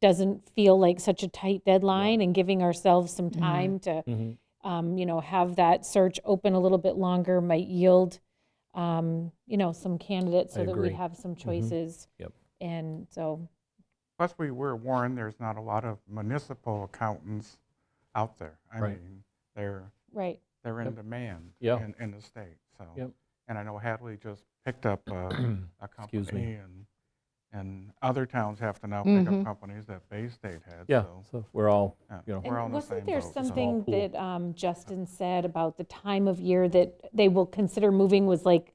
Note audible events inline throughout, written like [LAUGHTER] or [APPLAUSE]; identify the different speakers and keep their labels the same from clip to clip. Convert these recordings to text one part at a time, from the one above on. Speaker 1: doesn't feel like such a tight deadline and giving ourselves some
Speaker 2: Mm-hmm.
Speaker 1: time to, um, you know, have that search open a little bit longer might yield, um, you know, some candidates so that we
Speaker 2: agree. Mm-hmm.
Speaker 1: have some choices.
Speaker 2: Yep.
Speaker 1: And so,
Speaker 3: Plus, we were warned there's not a lot of municipal accountants out there. I
Speaker 2: Right.
Speaker 3: mean, they're,
Speaker 1: right,
Speaker 3: they're in
Speaker 2: Yep.
Speaker 3: demand
Speaker 2: Yeah.
Speaker 3: in, in the state, so.
Speaker 2: Yep.
Speaker 3: And I know Hadley just picked up
Speaker 2: [CLEARS THROAT]
Speaker 3: a, a
Speaker 2: Excuse me.
Speaker 3: company and, and other towns have to now pick
Speaker 1: Mm-hmm.
Speaker 3: up companies that Bay State had,
Speaker 2: [CLEARS THROAT] Yeah,
Speaker 3: so.
Speaker 2: so we're all,
Speaker 3: yeah,
Speaker 2: you know,
Speaker 3: we're all in
Speaker 1: And
Speaker 3: the
Speaker 1: wasn't
Speaker 3: same
Speaker 1: there
Speaker 3: boat, so.
Speaker 1: something
Speaker 2: pool.
Speaker 1: that um, Justin said about the time of year that they will consider moving was like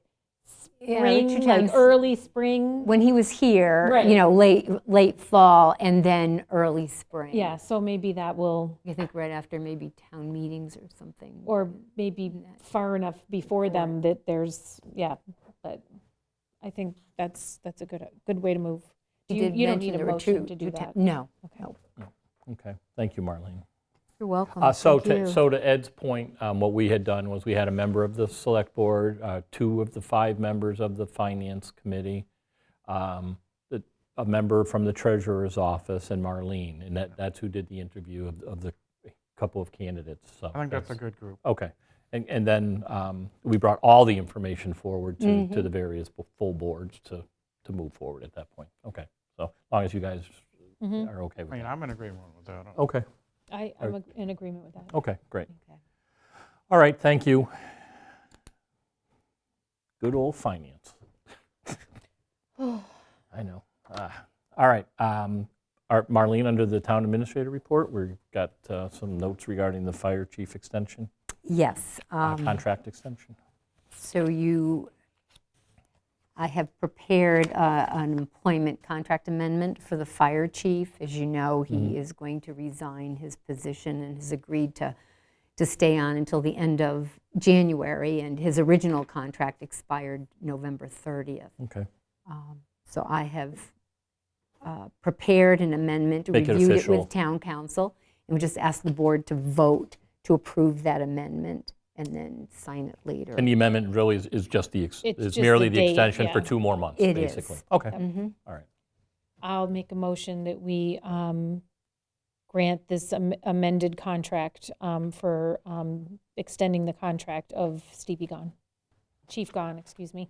Speaker 4: Yeah,
Speaker 1: spring,
Speaker 4: Richard Jones-
Speaker 1: like early spring?
Speaker 4: When he was here,
Speaker 1: Right.
Speaker 4: you know, late, late fall and then early spring.
Speaker 1: Yeah, so maybe that will,
Speaker 4: I think right after maybe town meetings or something.
Speaker 1: or maybe far enough before them that there's, yeah, but I think that's, that's a good, good way to move. Do
Speaker 4: He
Speaker 1: You
Speaker 4: did
Speaker 1: you don't
Speaker 4: mention
Speaker 1: need a
Speaker 4: there were
Speaker 1: motion
Speaker 4: two-
Speaker 1: to do
Speaker 4: two ta-
Speaker 1: that.
Speaker 4: No,
Speaker 1: Okay.
Speaker 4: no.
Speaker 2: okay, thank you, Marlene.
Speaker 4: You're welcome.
Speaker 2: Uh, So
Speaker 4: Oh, Thank
Speaker 2: to,
Speaker 4: you.
Speaker 2: so to Ed's point, um, what we had done was we had a member of the select board, uh, two of the five members of the finance committee, um, the- a member from the treasurer's office and Marlene, and that, that's who did the interview of, of the couple of candidates, so.
Speaker 3: I think that's a good group.
Speaker 2: Okay, and, and then um, we brought all the information forward to,
Speaker 4: Mm-hmm.
Speaker 2: to the various bo- full boards to, to move forward at that point. Okay, so as long as you guys are okay
Speaker 3: I
Speaker 2: with
Speaker 3: mean,
Speaker 2: that.
Speaker 3: I'm in agreement with that.
Speaker 2: Mm-hmm. Okay,
Speaker 1: Mm-hmm. I, I'm ag- in agreement with that.
Speaker 2: okay, great. All right, thank you. Good old [SIGHS] finance. I know. Ah. All right, um, our- Marlene, under the town administrator report, we've got uh, some notes regarding the fire chief extension,
Speaker 4: Yes.
Speaker 2: uh,
Speaker 4: um,
Speaker 2: contract extension.
Speaker 4: So you, I have prepared uh, an employment contract amendment for the fire chief. As you know,
Speaker 2: Mm-hmm.
Speaker 4: he is going to resign his position and has agreed to, to stay on until the end of January, and his original contract expired November 30th.
Speaker 2: Okay.
Speaker 4: Um, So I have uh, prepared an amendment,
Speaker 2: Make it
Speaker 4: reviewed it
Speaker 2: official.
Speaker 4: with town council, and we just ask the board to vote to approve that amendment and then sign it later.
Speaker 2: And the amendment really is, is just the, ex-
Speaker 1: It's
Speaker 2: is
Speaker 1: just
Speaker 2: merely
Speaker 1: the
Speaker 2: the
Speaker 1: date,
Speaker 2: extension for
Speaker 1: yeah.
Speaker 2: two more months,
Speaker 4: It
Speaker 2: basically.
Speaker 4: is.
Speaker 2: Okay,
Speaker 4: Mhm.
Speaker 2: all right.
Speaker 1: I'll make a motion that we um, grant this am- amended contract um, for um, extending the contract of Stevie Gahn, Chief Gahn, excuse me.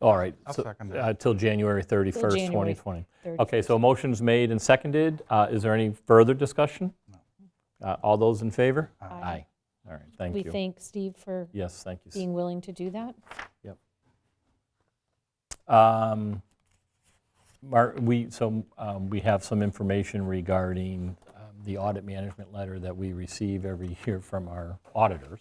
Speaker 2: All right.
Speaker 3: I'll
Speaker 2: so,
Speaker 3: second
Speaker 2: uh,
Speaker 3: that.
Speaker 2: Till January 31st,
Speaker 1: January
Speaker 2: 2020.
Speaker 1: 30.
Speaker 2: Okay, so a motion's made and seconded. Uh, Is there any further discussion? Uh, All those in favor? Aye. All right, thank
Speaker 1: We
Speaker 2: you.
Speaker 1: thank Steve for
Speaker 2: Yes, thank you.
Speaker 1: being willing to do that.
Speaker 2: Um, Mar- we, so um, we have some information regarding um, the audit management letter that we receive every year from our auditors.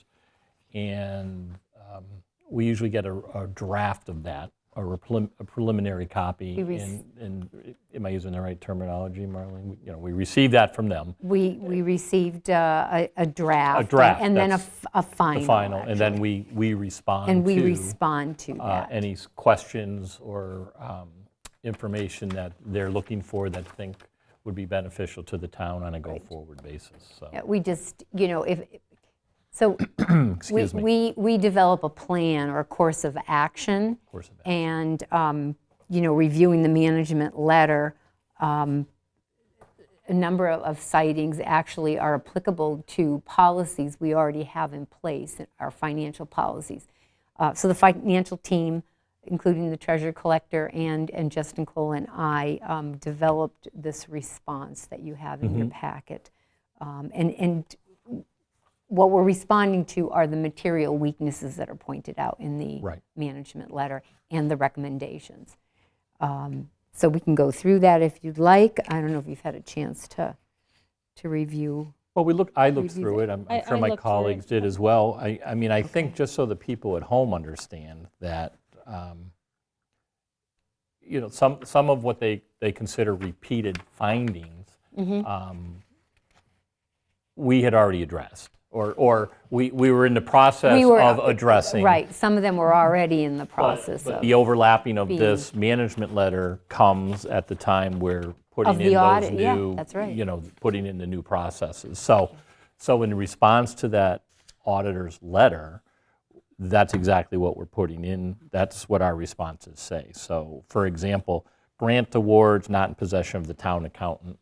Speaker 2: And um, we usually get a a draft of that, or a prelim- a preliminary copy.
Speaker 4: We rec-
Speaker 2: And, and am I using the right terminology, Marlene? We- You know, we receive that from them,
Speaker 4: We, we received uh, a, a draft.
Speaker 2: draft,
Speaker 4: And then a,
Speaker 2: that's
Speaker 4: f- a final.
Speaker 2: the final, and then
Speaker 4: actually.
Speaker 2: we, we respond
Speaker 4: And we
Speaker 2: to-
Speaker 4: respond to
Speaker 2: uh,
Speaker 4: that.
Speaker 2: any s- questions or um, information that they're looking for that think would be beneficial to the town on a go-forward basis, so,
Speaker 4: Uh, We just, you know, if, so we,
Speaker 2: [CLEARS THROAT] excuse me.
Speaker 4: we, we develop a plan or a course of action.
Speaker 2: course of action.
Speaker 4: And, um, you know, reviewing the management letter, um, a number of- of sightings actually are applicable to policies we already have in place, our financial policies. Uh, So the financial team, including the treasurer collector and, and Justin Cole and I, um, developed this response that you have in your packet. Um, And, and what we're responding to are the material weaknesses that are pointed out in the
Speaker 2: Right.
Speaker 4: management letter and the recommendations. Um, So we can go through that if you'd like. I don't know if you've had a chance to, to review.
Speaker 2: Well, we look, I looked
Speaker 4: Review
Speaker 2: through it, I'm I'm
Speaker 1: I-
Speaker 2: sure
Speaker 1: I
Speaker 2: my
Speaker 1: looked through it.
Speaker 2: colleagues did as well. I, I mean, I think just so the people at home understand that, um, you know, some, some of what they, they consider repeated findings,
Speaker 1: Mm-hmm.
Speaker 2: um, we had already addressed, or, or we, we were in the process
Speaker 4: We were-
Speaker 2: of addressing.
Speaker 4: Right, some of them were already in the
Speaker 2: But-
Speaker 4: process
Speaker 2: but
Speaker 4: of,
Speaker 2: The overlapping of
Speaker 4: being-
Speaker 2: this management letter comes at the time we're putting
Speaker 4: Of
Speaker 2: in
Speaker 4: the
Speaker 2: those
Speaker 4: audit, yeah,
Speaker 2: new,
Speaker 4: that's right.
Speaker 2: you know, putting in the new processes. So, so in response to that auditor's letter, that's exactly what we're putting in. That's what our responses say. So, for example, grant awards not in possession of the town accountant